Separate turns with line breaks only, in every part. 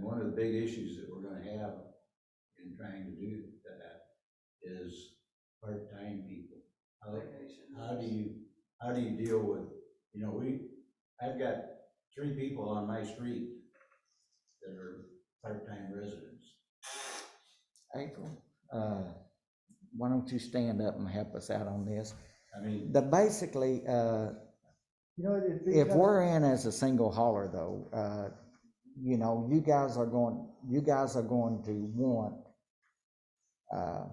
one of the big issues that we're gonna have in trying to do that is part-time people. How, how do you, how do you deal with, you know, we, I've got three people on my street that are part-time residents.
April, uh, why don't you stand up and help us out on this?
I mean,
The, basically, uh,
You know, it'd be.
if we're in as a single hauler though, uh, you know, you guys are going, you guys are going to want, uh,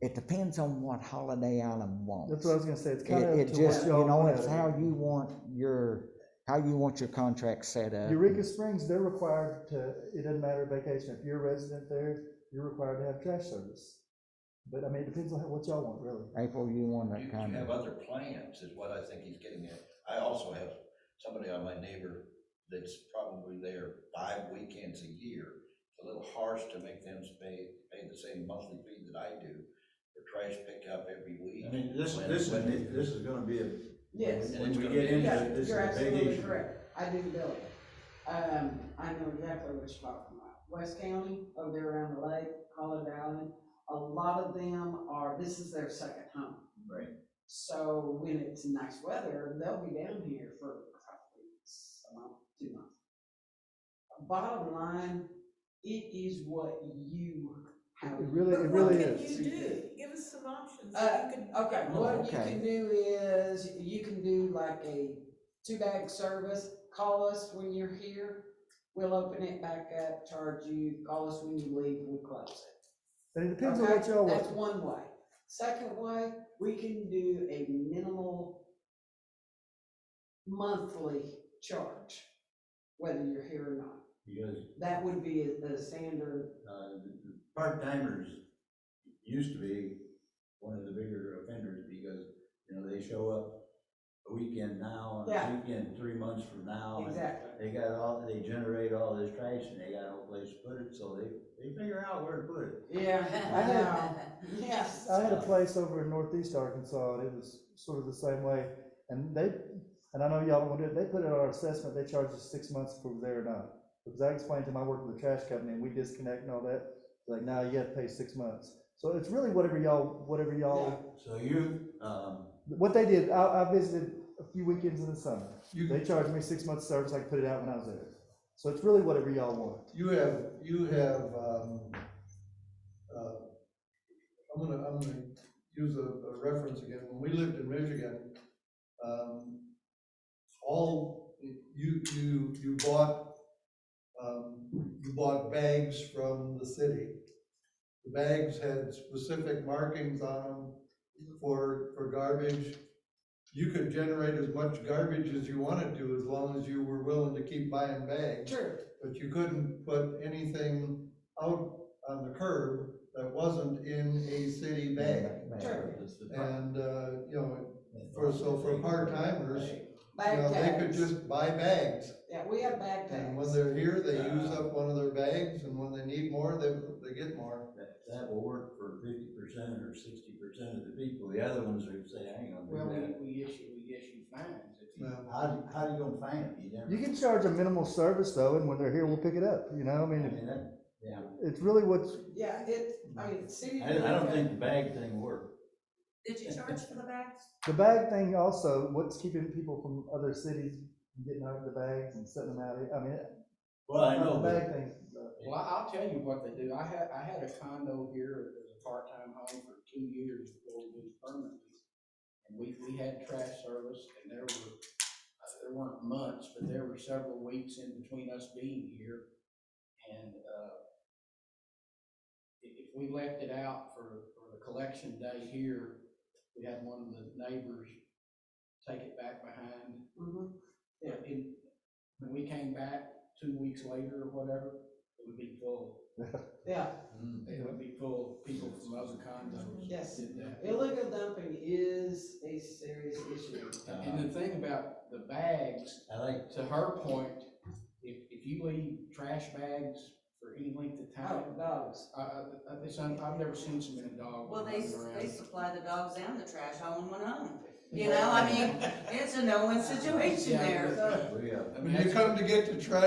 it depends on what Holiday Island wants.
That's what I was gonna say, it's
It,
kind of.
it just, you know, it's how you want your, how you want your contract set up.
Eureka Springs, they're required to, it doesn't matter vacation, if you're a resident there, you're required to have trash service. But I mean, it depends on what y'all want, really.
April, you want
You
that
you
kind
have
of,
other plans is what I think he's getting at. I also have somebody on my neighbor that's probably there five weekends a year. It's a little harsh to make them pay, pay the same monthly fee that I do for trash pickup every week.
I mean, this, this, is- this is gonna be a.
Yes,
When
It's
we
gonna
get
be-
into
yeah,
it, this is
you're
a big
absolutely
issue.
correct. I do build it. Um, I know exactly what you're talking about. West County, over there around the lake, Holiday Island, a lot of them are, this is their second home.
Right.
So when it's nice weather, they'll be down here for a couple weeks, a month, two months. Bottom line, it is what you have.
It really,
But
it really
What
is.
can you do? Give us some options.
Uh,
You could-
Okay, what you
okay.
can do is, you can do like a two-bag service, call us when you're here, we'll open it back up, charge you, call us when you leave, we close it.
And it depends on
Okay?
what y'all
That's
want.
one way. Second way, we can do a minimal monthly charge, whether you're here or not.
Because
That would be the standard,
uh, part-timers used to be one of the bigger offenders because, you know, they show up a weekend now, and
Yeah.
a weekend three months from now. and
exactly.
They got all, they generate all this trash and they got no place to put it, so they, they figure out where to put it.
Yeah, I know, yes.
I had a place over in northeast Arkansas, and it was sort of the same way, and they, and I know y'all don't want to do it, they put it on our assessment, they charge us six months for there or not. Because I explained to them, I work with the trash company, and we disconnect and all that, like, now you gotta pay six months. So it's really whatever y'all, whatever y'all
So you, um,
What they did, I, I visited a few weekends in the summer. They charged me six months service, I could put it out when I was there. So it's really whatever y'all want.
You have, you have, um, uh, I'm gonna, I'm gonna use a, a reference again. When we lived in Michigan, um, all, you, you, you bought, um, you bought bags from the city. The bags had specific markings on them for, for garbage. You could generate as much garbage as you wanted to, as long as you were willing to keep buying bags
True,
but you couldn't put anything out on the curb that wasn't in a city bag.
Sure.
And, uh, you know, for, so for part-timers, you
bag
know, they could
tags.
just buy bags.
Yeah, we have bag
And
tags.
when they're here, they use up one of their bags, and when they need more, they, they get more.
that, that will work for fifty percent or sixty percent of the people. The other ones are saying, I ain't
Well,
gonna do that.
we, we issue, we issue fines if you.
Now,
How, do- how do you gonna find it? You never.
You can charge a minimal service though, and when they're here, we'll pick it up, you know, I
I
mean,
mean, that, yeah.
it's really what's,
Yeah, it, I mean, city.
I, I don't think the bag thing worked.
Did you charge for the bags?
the bag thing also, what's keeping people from other cities from getting out of the bags and setting them out, I mean,
Well, I know,
the
but
bag thing. uh,
Well, I- I'll tell you what they do. I had, I had a condo here as a part-time home for two years before we moved permanently. And we, we had trash service and there were, uh, there weren't months, but there were several weeks in between us being here. And, uh, if, if we left it out for, for the collection day here, we had one of the neighbors take it back behind
Mhm.
yeah, it, when we came back two weeks later or whatever, it would be full.
Yeah,
It would be full of people from other condos.
Yes.
did that.
illegal dumping is a serious issue.
And the thing about the bags,
Mm. I like
to her point, if, if you leave trash bags for any length of
Oh,
time,
dogs.
I, I, I- this, I've I've never seen so many dogs
Well, they,
running
s-
around.
they supply the dogs and the trash all in one home. You know, I mean, it's a no-win situation
Yeah,
there.
but-
We, uh,
I mean,
When you
that's-
come to get the trash